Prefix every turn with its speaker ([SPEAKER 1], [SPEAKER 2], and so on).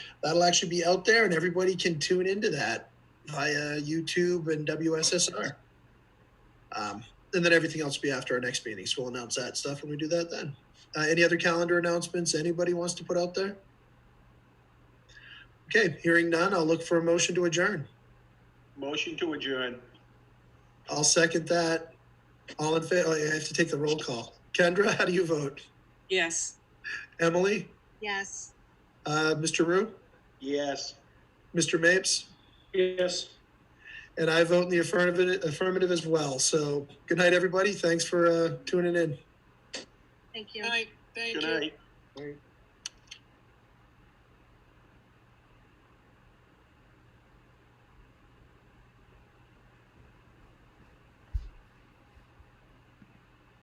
[SPEAKER 1] that'll actually be out there and everybody can tune into that via YouTube and WSSR. Um, and then everything else will be after our next meeting. So we'll announce that stuff when we do that then. Uh, any other calendar announcements anybody wants to put out there? Okay, hearing none, I'll look for a motion to adjourn.
[SPEAKER 2] Motion to adjourn.
[SPEAKER 1] I'll second that. All in favor, I have to take the roll call. Kendra, how do you vote?
[SPEAKER 3] Yes.
[SPEAKER 1] Emily,
[SPEAKER 4] Yes.
[SPEAKER 1] uh, Mr. Rue,
[SPEAKER 2] Yes.
[SPEAKER 1] Mr. Mapes?
[SPEAKER 2] Yes.
[SPEAKER 1] And I vote in the affirmative, affirmative as well. So good night, everybody. Thanks for uh, tuning in.
[SPEAKER 4] Thank you.
[SPEAKER 5] Good night, thank
[SPEAKER 2] Good
[SPEAKER 5] you.
[SPEAKER 2] night.